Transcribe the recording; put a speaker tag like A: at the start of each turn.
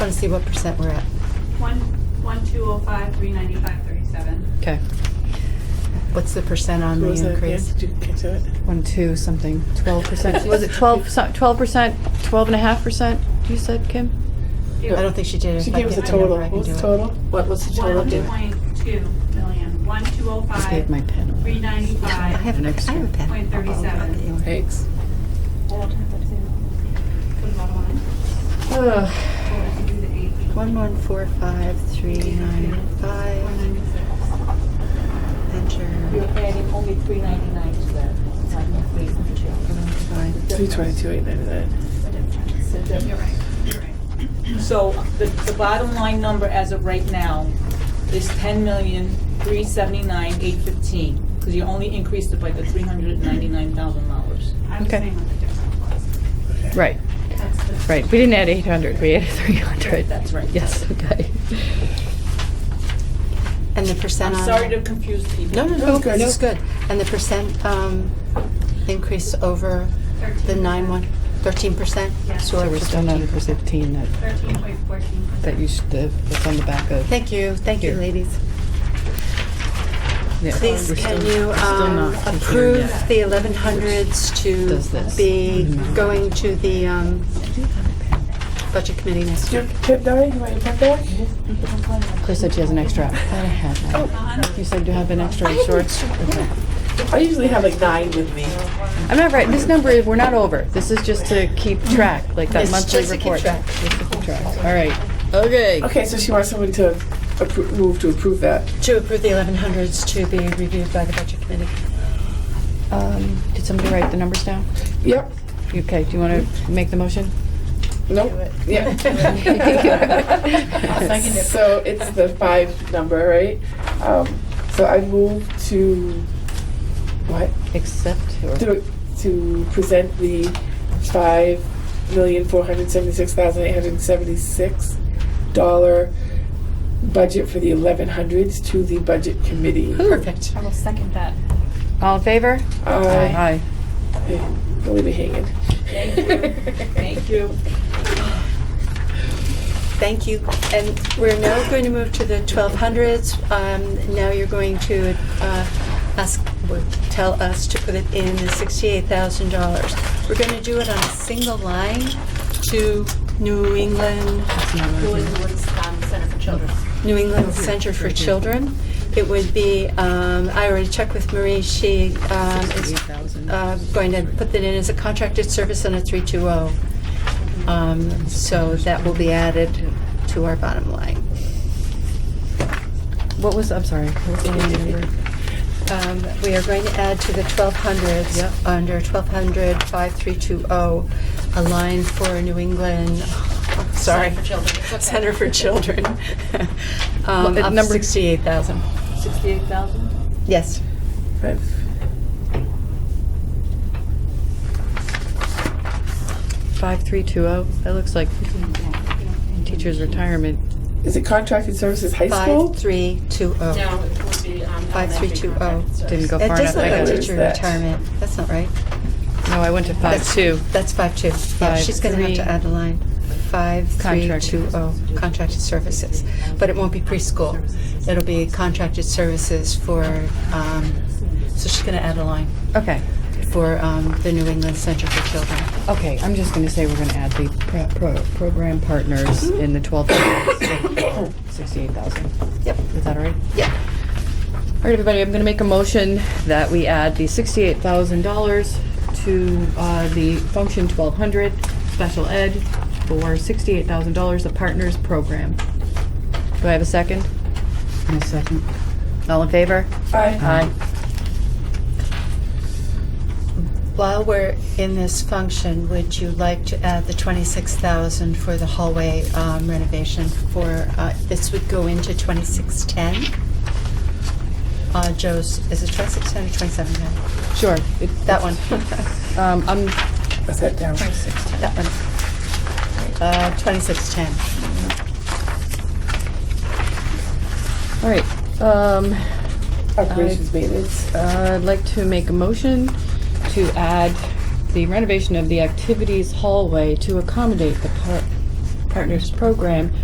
A: want to see what percent we're at.
B: One, one, two, oh, five, three, ninety-five, thirty-seven.
C: Okay.
A: What's the percent on
D: What
A: the
D: was that again?
A: increase?
D: Did you get to it?
C: One, two, something, twelve percent. Was it twelve, twelve percent, twelve and a half percent, you said, Kim?
A: I don't think she did it.
D: She
A: If I
D: gave us a
A: get the number, I
D: total. What
A: can do
D: was
E: What was
A: it.
D: the total?
E: the total?
B: One
E: did-
B: point two million, one, two, oh,
C: I gave my
B: five,
C: pen.
B: three,
A: I
B: ninety-five.
A: have an
E: Next
A: extra. I have a pen.
B: Point thirty-seven.
A: Oh, okay.
E: Thanks.
C: Ugh.
A: One, one, four, five, three, nine, five,
F: You're
A: enter,
F: adding only three ninety-nine to that, it's like three twenty-two.
A: divide.
D: Three twenty-two, eight ninety-nine.
F: So
B: You're
F: the-
B: right, you're right.
F: So the, the bottom line number as of right now is ten million, three seventy-nine, eight fifteen, because you only increased it by the three hundred and ninety-nine thousand dollars.
B: I'm
C: Okay.
B: saying what the difference was.
C: Right,
B: That's the.
C: right. We didn't add eight hundred, we added three hundred.
F: That's right.
C: Yes, okay.
A: And the percent
F: I'm
A: on.
F: sorry to confuse people.
A: No, no,
D: No,
A: no,
D: it's good.
A: this is good. And the percent um, increase over the
B: 13%.
A: nine one, thirteen percent?
B: Yeah.
C: So we're still not at the fifteen that,
B: Thirteen point fourteen
C: that you
B: percent.
C: should, that's on the back of.
A: Thank you, thank you,
C: Here.
A: ladies.
C: yeah,
A: Please,
C: we're
A: can
C: still-
A: you
C: we're still
A: um,
C: not considering
A: approve
C: that.
A: the 1100s
C: Does
A: to
C: this. Mm-hmm.
A: be going to the um, Budget Committee next
D: Your
A: week?
D: pip, Dari, you want your pip back?
C: Claire said she has an extra. I thought I had that. You said you have an extra in shorts? Okay.
D: I usually have like nine with me.
C: I'm not right, this number, is- we're not over. This is just to keep track, like that
A: It's
C: monthly
A: just to keep
C: report.
A: track.
C: Just to keep track. All right. Okay.
D: Okay, so she wants somebody to appro- move to approve that.
A: To approve the 1100s to be reviewed by the Budget Committee.
C: Um, did somebody write the numbers down?
D: Yep.
C: Okay, do you want to make the motion?
D: Nope. Yeah. So it's the five number, right? Um, so I move to what?
C: Accept or
D: To, to present the five million four hundred seventy-six thousand eight hundred seventy-six dollar budget for the eleven hundreds to the budget committee.
A: Perfect.
E: I will second that.
C: all in favor?
D: Uh, Don't leave me hanging.
F: Thank you.
A: Thank you. And we're now going to move to the 1200s. Um, Now you're going to uh, ask, tell us to put it in the $68,000. We're going to do it on a single line to New England
E: Julie Woods, um, Center for Children.
A: New England Center for Children. It would be, um, I already checked with Marie, she um, is uh, going to put that in as a contracted service on a 320. Um, So that will be added to our bottom line.
C: What was, I'm sorry. what was the line number?
A: Um, We are going to add to the 1200s, under 1200-5320, oh, a line for New England, sorry,
E: Center for Children. It's okay. uh,
A: Center for Children, um,
C: Well, at
A: of
C: number-
A: 68,000.
F: Sixty-eight thousand?
A: Yes.
D: Five.
C: Five, three, two, oh. That looks like teacher's retirement.
D: Is it contracted services high school?
A: 5320.
E: No, it would be, um.
A: oh. Five, three, two, oh.
C: Didn't go
A: That
C: far
A: does look like
C: enough. I got
D: gotta-
C: it.
A: teacher
D: What is that?
A: retirement. That's not right.
C: No, I went to five,
A: That's-
C: two.
A: That's five two. Yeah,
C: Five,
A: she's going to have
C: three.
A: to add a line. Five three
C: Contracted.
A: two oh contracted services, but it won't be preschool. It'll be contracted services for. Um, so she's going to add a line
C: Okay.
A: for um, the New England Center for Children.
C: Okay, I'm just gonna say we're gonna add the pro- pro- program partners
A: Mm-hmm.
C: in the twelve thousand, sixty-eight thousand.
A: Yep.
C: Is that all right?
A: Yep.
C: All right, everybody, I'm gonna make a motion that we add the sixty-eight thousand dollars to, uh, the function twelve hundred, special ed, for sixty-eight thousand dollars, the partners program. Do I have a second? A second. All in favor?
D: Aye.
A: While we're in this function, would you like to add the 26,000 for the hallway um, renovation for, uh, this would go into 2610? Uh, Joe's, is it 2610 or 2710?
C: Sure. it-
A: That one, Uh,
C: Um, I'm,
D: I sat down.
A: that one. Uh, 2610.
C: all right, um,
D: Operations maintenance.
C: Uh, I'd like to make a motion to add the renovation of the activities hallway to accommodate the par- partners program